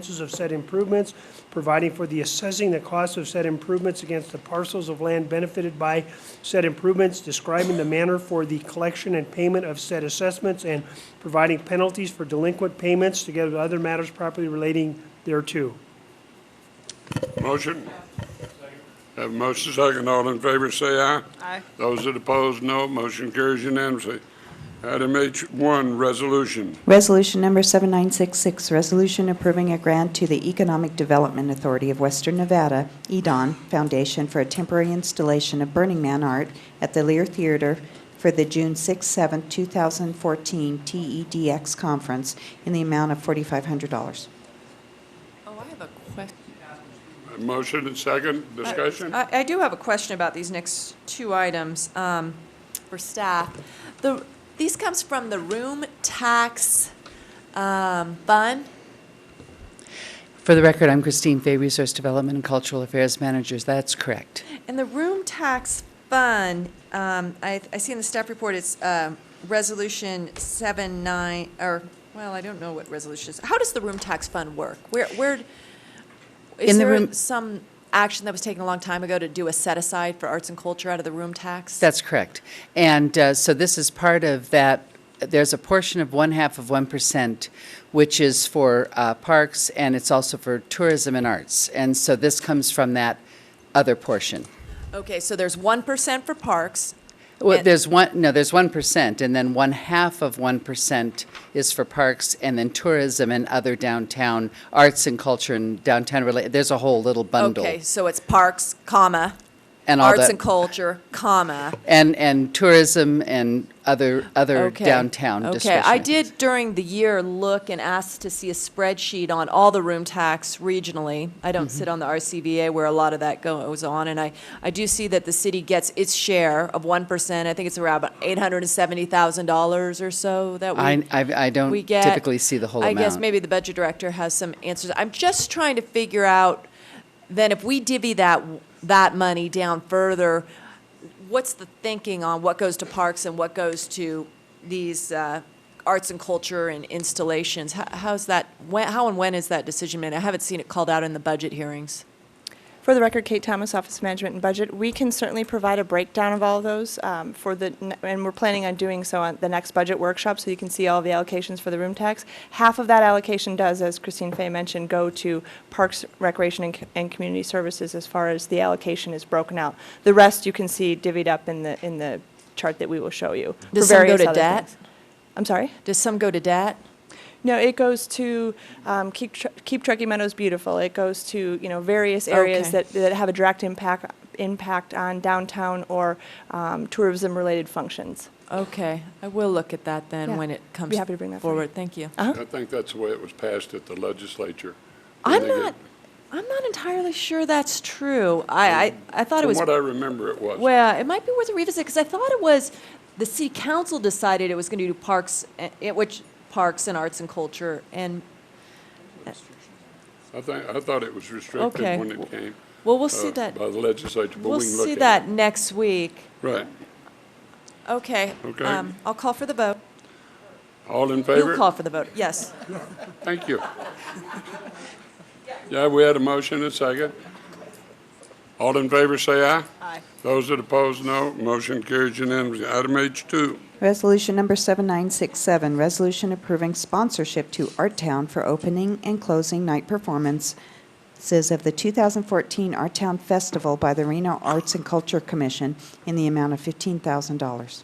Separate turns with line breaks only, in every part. expenses of said improvements, providing for the assessing the cost of said improvements against the parcels of land benefited by said improvements, describing the manner for the collection and payment of said assessments, and providing penalties for delinquent payments, together with other matters properly relating thereto.
Motion? Have a motion second. All in favor, say aye.
Aye.
Those that oppose, no. Motion carries unanimously. Item H1, resolution.
Resolution number 7966, resolution approving a grant to the Economic Development Authority of Western Nevada, E EDON Foundation for a temporary installation of Burning Man art at the Lear Theater for the June 6, 7, 2014 TEDx E Conference in the amount of $4,500.
Oh, I have a question.
Have a Motion and second,
Uh,
discussion?
I, I do have a question about these next two items um, for staff. The, these comes from the room tax um, fund.
For the record, I'm Christine Fay, Resource Development and Cultural Affairs Managers. That's correct.
And the room tax fund, um, I, I see in the staff report, it's um, Resolution 7, 9, or, well, I don't know what resolution is. How does the room tax fund work? Where, where, is
In the
there
room-
some action that was taken a long time ago to do a set-aside for arts and culture out of the room tax?
That's correct. And uh, so this is part of that, there's a portion of one half of 1%, which is for uh, parks, and it's also for tourism and arts. And so this comes from that other portion.
Okay, so there's 1% for parks,
Well,
And-
there's one, no, there's 1%, and then one half of 1% is for parks, and then tourism and other downtown, arts and culture and downtown, related. there's a whole little bundle.
Okay, so it's parks, comma,
And all
arts
that-
and culture, comma.
And, and tourism and other, other
Okay.
downtown
Okay, I
discretionary.
did during the year look and asked to see a spreadsheet on all the room tax regionally. I
Mm-hmm.
don't sit on the RCVA where a lot of that goes on, and I, I do see that the city gets its share of one percent. I think it's around eight hundred and seventy thousand dollars or so that we.
I, I I don't
we get.
typically see the whole amount.
I guess maybe the budget director has some answers. I'm just trying to figure out, then if we divvy that, that money down further, what's the thinking on what goes to parks and what goes to these uh, arts and culture and installations? How- How's that, when, how and when is that decision made? I haven't seen it called out in the budget hearings.
For the record, Kate Thomas, Office of Management and Budget, we can certainly provide a breakdown of all of those um, for the, and we're planning on doing so on the next budget workshop, so you can see all the allocations for the room tax. Half of that allocation does, as Christine Fay mentioned, go to Parks, Recreation, and Co- and Community Services as far as the allocation is broken out. The rest you can see divvied up in the, in the chart that we will show you. for
Does some go
various
to
other
debt?
things. I'm sorry?
Does some go to debt?
No, it goes to um, keep Tr- keep Truckee Meadows beautiful. It goes to you know various areas
Okay.
that, that have a direct impact impact on downtown or um, tourism related functions.
Okay, I will look at that then
Yeah.
when it comes
Be happy to bring that Uh-huh. for you.
forward. Thank you.
I think that's the way it was passed at the legislature.
I'm
They get-
not, I'm not entirely sure that's true. I, I, I thought it
From
was,
what I remember, it was.
well, it might be worth a revisit, because I thought it was, the city council decided it was going to do parks, eh, eh, which, parks and arts and culture, and,
I think, I thought it was restricted
Okay.
when it came.
well, we'll
uh,
see that,
By the legislature, but
we'll
we can look at it.
see that next week.
Right.
Okay.
Okay.
um, I'll call for the vote.
All in
You'll
favor?
call for the vote, yes.
Thank you. Yeah, we had a motion and second. All in favor, say aye.
Aye.
Those that oppose, no. Motion carries unanimously. Item H2,
Resolution number 7967, resolution approving sponsorship to Art Town for opening and closing night performances of the 2014 Art Town Festival by the Reno Arts and Culture Commission in the amount of $15,000.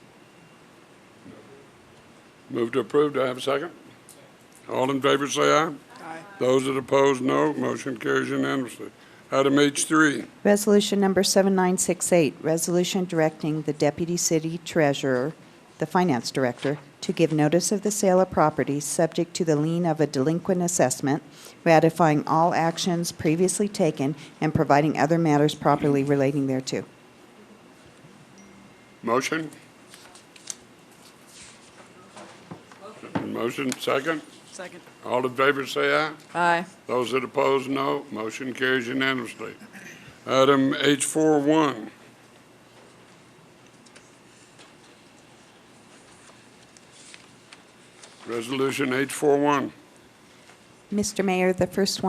move to approve. Do I have a second? All in favor, say aye. Aye. Those that oppose, no. Motion carries unanimously. Item H3,
Resolution number 7968, resolution directing the deputy city treasurer, the finance director, to give notice of the sale of property subject to the lien of a delinquent assessment, ratifying all actions previously taken, and providing other matters properly relating thereto.
motion? Motion, second? Second. All in favor, say aye.
Aye.
Those that oppose, no. Motion carries unanimously. Item H41, Resolution H41.
Mr. Mayor, the first one